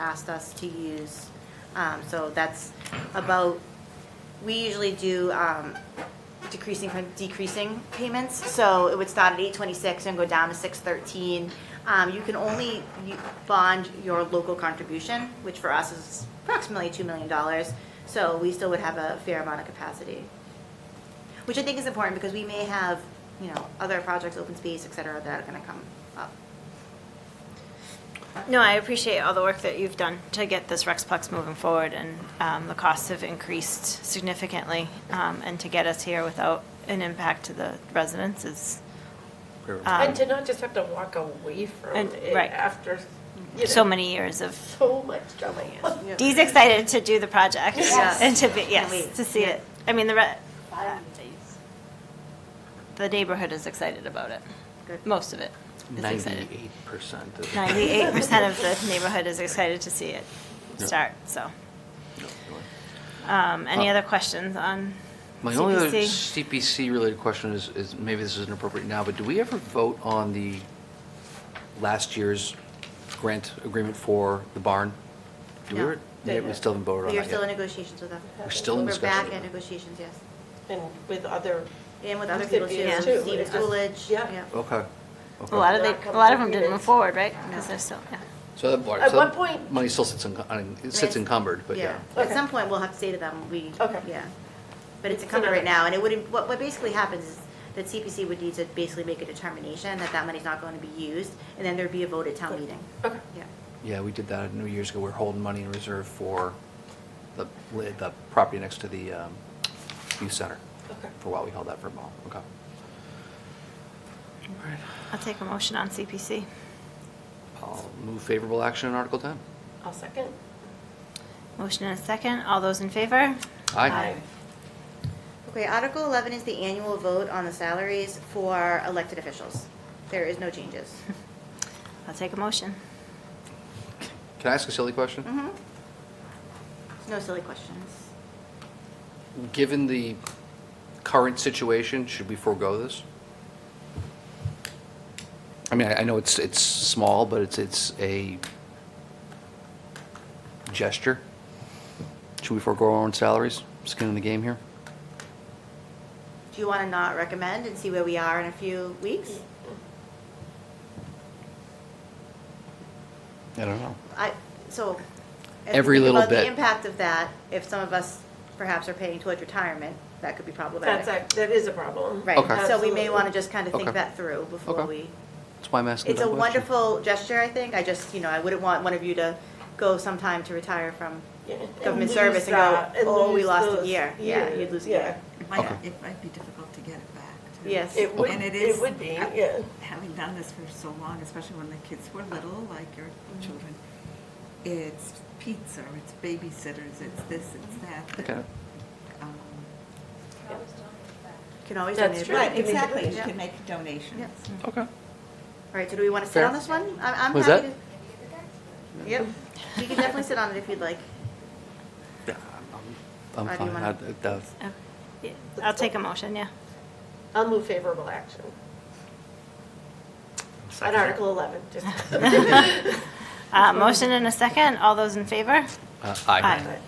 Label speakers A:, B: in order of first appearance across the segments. A: asked us to use. Um, So that's about, we usually do um, decreasing from decreasing payments. So it would start at 826 and go down to 613. Um, You can only u- bond your local contribution, which for us is approximately $2 million. So we still would have a fair amount of capacity which I think is important because we may have, you know, other projects, open space, et cetera, that are gonna come up.
B: No, I appreciate all the work that you've done to get this Rexplex moving forward, and um, the costs have increased significantly, um, and to get us here without an impact to the residents is
C: And to not just have to walk away from
B: Um, And-
C: it
B: right.
C: after, you know,
B: so many years of,
C: so much demand.
B: Dee's excited to do the project.
A: Yes.
B: And to be,
A: wait.
B: yes, to see it. I mean, the, re- the neighborhood is excited about it,
A: Good.
B: most of it is excited.
D: Ninety-eight percent of. the-
B: Ninety-eight percent of the neighborhood is excited to see it
D: Yeah.
B: start, so.
D: No, go on.
B: Um, Any
D: Uh,
B: other questions on
D: My only other
B: CPC?
D: CPC-related question is, is maybe this isn't appropriate now, but do we ever vote on the last year's grant agreement for the barn? Do we
A: No.
D: ever- yeah, We still haven't voted on
A: We are
D: that
A: still in
D: yet.
A: negotiations with them.
D: We're still in discussion.
A: We're back in negotiations, yes,
C: And with other,
A: and with other people
C: Recipients
A: too,
C: too,
A: Steve
C: it's just-
A: Coolidge,
C: yeah.
A: yeah.
D: Okay.
B: A
D: okay.
B: lot of,
C: Not
B: they- a lot of them
C: completed.
B: didn't move forward, right?
A: No.
B: Because they're still, yeah.
D: So that bar,
C: At
D: so
C: one
D: that
C: point-
D: money still sits encum- un- it sits encumbered, but yeah.
A: At
C: Okay.
A: some point, we'll have to say to them, we,
C: Okay.
A: yeah. But it's
C: It's
A: encumbered right
C: another-
A: now, and it wouldn't, what, what basically happens is that CPC would need to basically make a determination that that money's not going to be used, and then there'd be a vote at town meeting,
C: okay,
A: yeah.
D: Yeah, we did that a New Year's ago. We We're holding money in reserve for the, li- the property next to the um, youth center.
C: Okay.
D: For a while, we held that for a while, okay.
B: I'll take a motion on CPC.
D: I'll move favorable action on Article 10.
C: I'll second.
B: Motion and a second. All those in favor?
D: Aye.
A: Okay, Article 11 is the annual vote on the salaries for elected officials. There is no changes.
B: I'll take a motion.
D: Can I ask a silly question?
A: hmm Mm-hmm. No silly questions. Mm-hmm.
D: Given the current situation, should we forego this? I mean, I I know it's, it's small, but it's, it's a gesture. Should we forego our own salaries? Skin in the game here?
A: Do you want to not recommend and see where we are in a few weeks?
D: I don't know.
A: I, so. as we
D: Every
A: think
D: little
A: about
D: bit.
A: The impact of that, if some of us perhaps are paying towards retirement, that could be
C: That's,
A: problematic.
C: a- that is a problem.
D: Okay.
A: Right, so we may want to just kind of think
D: Okay.
A: that through before
D: Okay.
A: we.
D: That's why I'm asking
A: It's
D: that
A: a
D: question.
A: wonderful gesture, I think. I just, you know, I wouldn't want one of you to go sometime to retire from
C: Yeah, and
A: government
C: lose
A: service and go,
C: that, and
A: oh, we
C: lose
A: lost a
C: those
A: year. Yeah, you'd lose a year.
E: It might,
D: Okay.
E: it might be difficult to get it back. too.
A: Yes.
C: It would,
E: And it
C: it
E: is-
C: would be, yeah.
E: Having done this for so long, especially when the kids were little, like your
C: Mm-hmm.
E: children, it's pizza, it's babysitters, it's this, it's that, that.
D: Okay.
E: um,
A: Can always
C: That's
A: donate.
C: true.
A: Right,
E: Right,
C: You can make a
E: exactly, you
A: donation.
E: can make donations.
A: Yep.
D: Okay.
A: All right, so do we want to sit
D: Fair.
A: on this one? I- I'm
D: Was
A: happy
D: that-
A: to- Yep, you can definitely sit on it if you'd like.
D: Yeah, I'm
A: Or
D: I'm
A: do you
D: fine.
A: wanna-
D: I- I-
B: Oh, yeah, I'll take a motion, yeah. Uh,
C: I'll move favorable action on Article 11, just.
B: Uh, Motion and a second. All those in favor?
D: Uh, Aye.
B: Aye.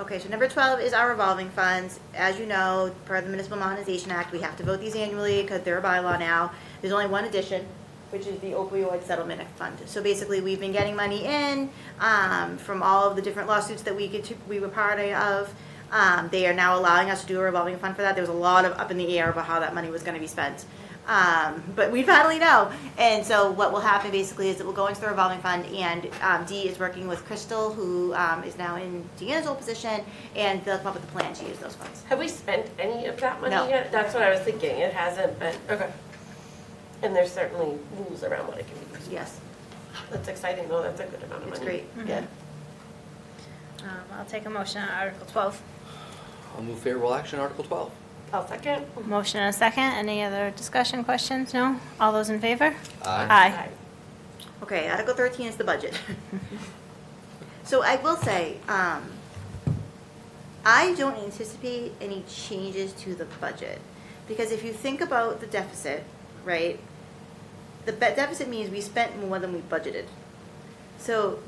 A: Okay, so number 12 is our revolving funds. As you know, per the Municipal Modernization Act, we have to vote these annually because they're a bylaw now. There's only one addition, which is the opioid settlement fund. So basically, we've been getting money in um, from all of the different lawsuits that we get to, we were part of. Um, They are now allowing us to do a revolving fund for that. There was a lot of up in the air about how that money was going to be spent. Um, but we finally know. And so what will happen basically is it will go into the revolving fund and, um, Dee is working with Crystal, who, um, is now in Deanna's old position, and they'll come up with a plan to use those funds.
C: Have we spent any of that money
A: No.
C: yet? That's what I was thinking, it hasn't, but, okay. And there's certainly rules around what it can be used.
A: Yes,
C: for. That's exciting, though, that's a good amount of
A: it's
C: money. Mm-hmm.
A: great.
C: Yeah.
B: Um, I'll take a motion on Article 12.
D: I'll move favorable action, Article 12.
C: I'll second.
B: Motion and a second. Any other discussion, questions? No? All those in favor?
D: Aye.
B: Aye.
A: Okay, Article thirteen is the budget. So I will say, um, I don't anticipate any changes to the budget. Because if you think about the deficit, right, the be- deficit means we spent more than we budgeted. So